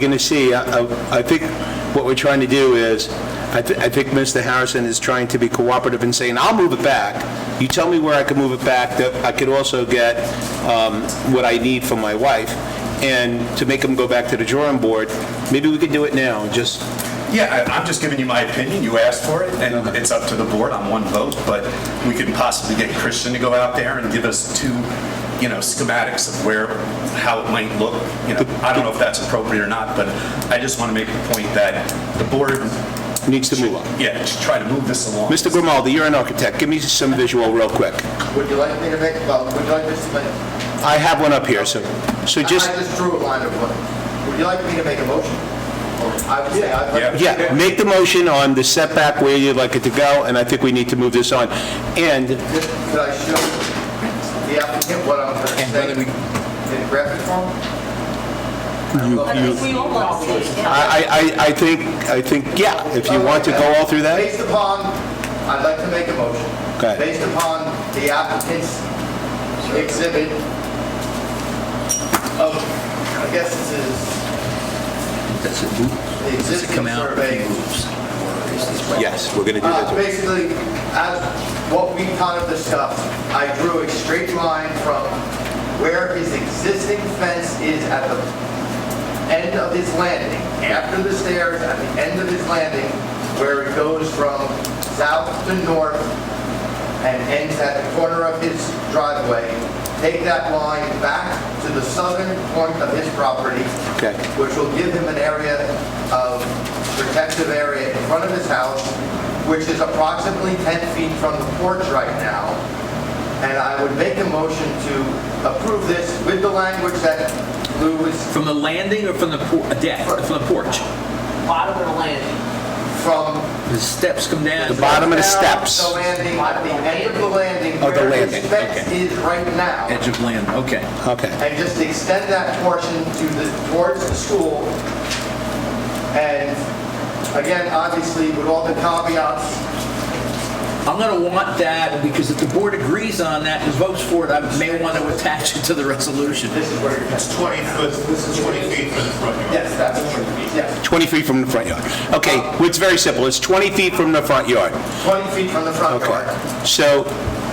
going to see, I I- I think what we're trying to do is, I thi- I think Mr. Harrison is trying to be cooperative and saying, I'll move it back. You tell me where I can move it back, that I could also get um, what I need from my wife. And to make him go back to the drawing board, maybe we could do it now, just, Yeah, I- I'm just giving you my opinion. You asked for it, and it's up to the board on one vote, but we could possibly get Christian to go out there and give us two, you know, schematics of where, how it might look. You know, I don't know if that's appropriate or not, but I just want to make the point that the board, needs to move on. yeah, should try to move this along. Mr. Grimaldi, you're an architect, give me some visual real quick. Would you like me to make, well, would you like me to make? I have one up here, so, so just, I just drew a line of what, would you like me to make a motion? Or I would say I'd like. Yeah. yeah, make the motion on the setback where you'd like it to go, and I think we need to move this on. And Could could I show the applicant what I'm going to say in graphic form? I think we all want to see it, yeah. I, I, I- I think, I think, yeah, if you want to go all through that, Based upon, I'd like to make a motion. Go ahead. Based upon the applicant's exhibit of, I guess this is Does it move? the Does it existing come out? if survey. it moves? Or is this- yes, we're going to do Uh, that. Basically, as what we kind of discussed, I drew a straight line from where his existing fence is at the end of his landing, after the stairs, at the end of his landing, where it goes from south to north and ends at the corner of his driveway. Take that line back to the southern point of his property, Okay. which will give him an area of protective area in front of his house, which is approximately 10 feet from the porch right now. And I would make a motion to approve this with the language that Lou was From the landing or from the por- a deck, from the porch? Bottom of the landing. from The steps come down. The bottom of the steps. The landing, at the end of the landing. Of the where his landing, fence okay. is right now. Edge of land, okay. Okay, and just extend that portion to the, towards the school. And again, obviously, with all the caveats, I'm gonna want that, because if the board agrees on that and votes for it, I may want to attach it to the resolution. this is where you're. It's 20 foot, this is 20 feet from the front yard. Yes, that's true, yes. 20 feet from the front yard. Okay, well, it's very simple, it's 20 feet from the front yard. 20 feet from the front yard. Okay, so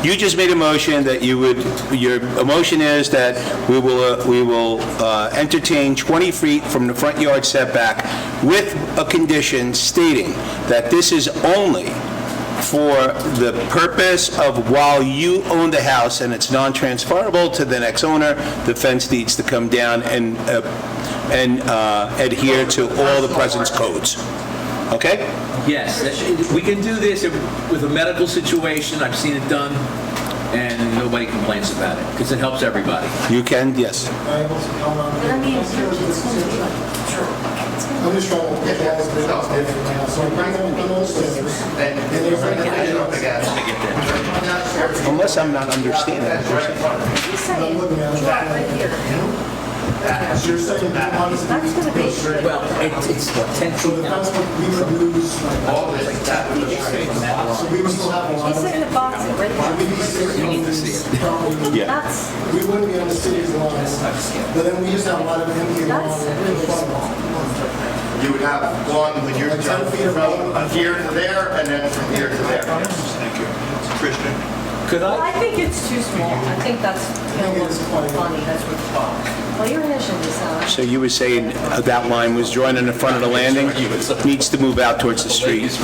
you just made a motion that you would, your motion is that we will, uh, we will uh, entertain 20 feet from the front yard setback with a condition stating that this is only for the purpose of while you own the house and it's non-transferable to the next owner, the fence needs to come down and, uh, and uh, adhere to all the presence codes. Okay? Yes, that- we can do this if- with a medical situation, I've seen it done, and nobody complains about it, because it helps everybody. You can, yes. But I mean, it's gonna be like- I'm just trying to get all the data out now, so I'm bringing them to those standards. And there's an addition up I again. get that. Unless I'm not understanding. That's right in front of you. He's saying, I'm looking at it. that right here. That- You're saying that how does That's gonna be- it go Well, it- it's So the potential. fence would, we would lose, like, All this, that would be straight. so we would still have a lot He's of. in the box right We'd be there. sitting on this property. That's, We wouldn't be on the city's lines, but then we just have a lot of empty that's really small. land. You would have one when you're Like 10 done feet of from here to there and then from here to there. Thank you. Christian? Could Well, I I? think it's too small. I think that's, you know, I think it's quite- funny, that's what it's called. Well, your initial So design. you were saying uh, that line was drawn in the front of the landing, needs to move out towards the street.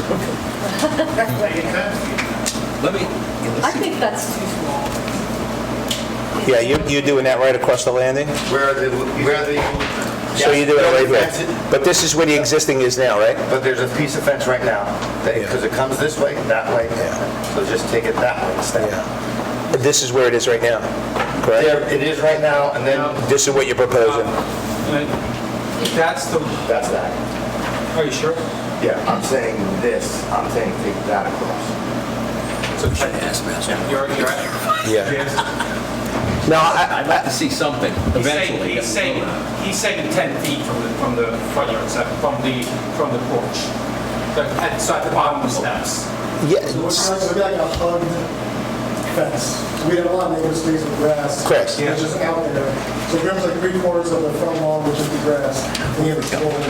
Let me, I think that's too small. Yeah, you're, you're doing that right across the landing? Where the, where the. So you're doing it Where the right fence is- here? But this is where the existing is now, right? But there's a piece of fence right now, because it comes this way, that way, so just take it that way instead. This is where it is right now, correct? There, it is right now, and then This is what you're proposing? That's the, that's that. are you sure? Yeah, I'm saying this, I'm saying take that across. So check this. You're, you're right. Yeah. Yes. No, I, I'd like to see something He's saying- eventually. He's saying, he's saying 10 feet from the, from the front yard, set, from the, from the porch. But at, so at the bottom of the steps. I- yeah, We're trying to, we're like a hug, fence. We had a lot of native stays of grass. Correct. That's just out there. So remember like three quarters of the front lawn, which is the grass, and you have a whole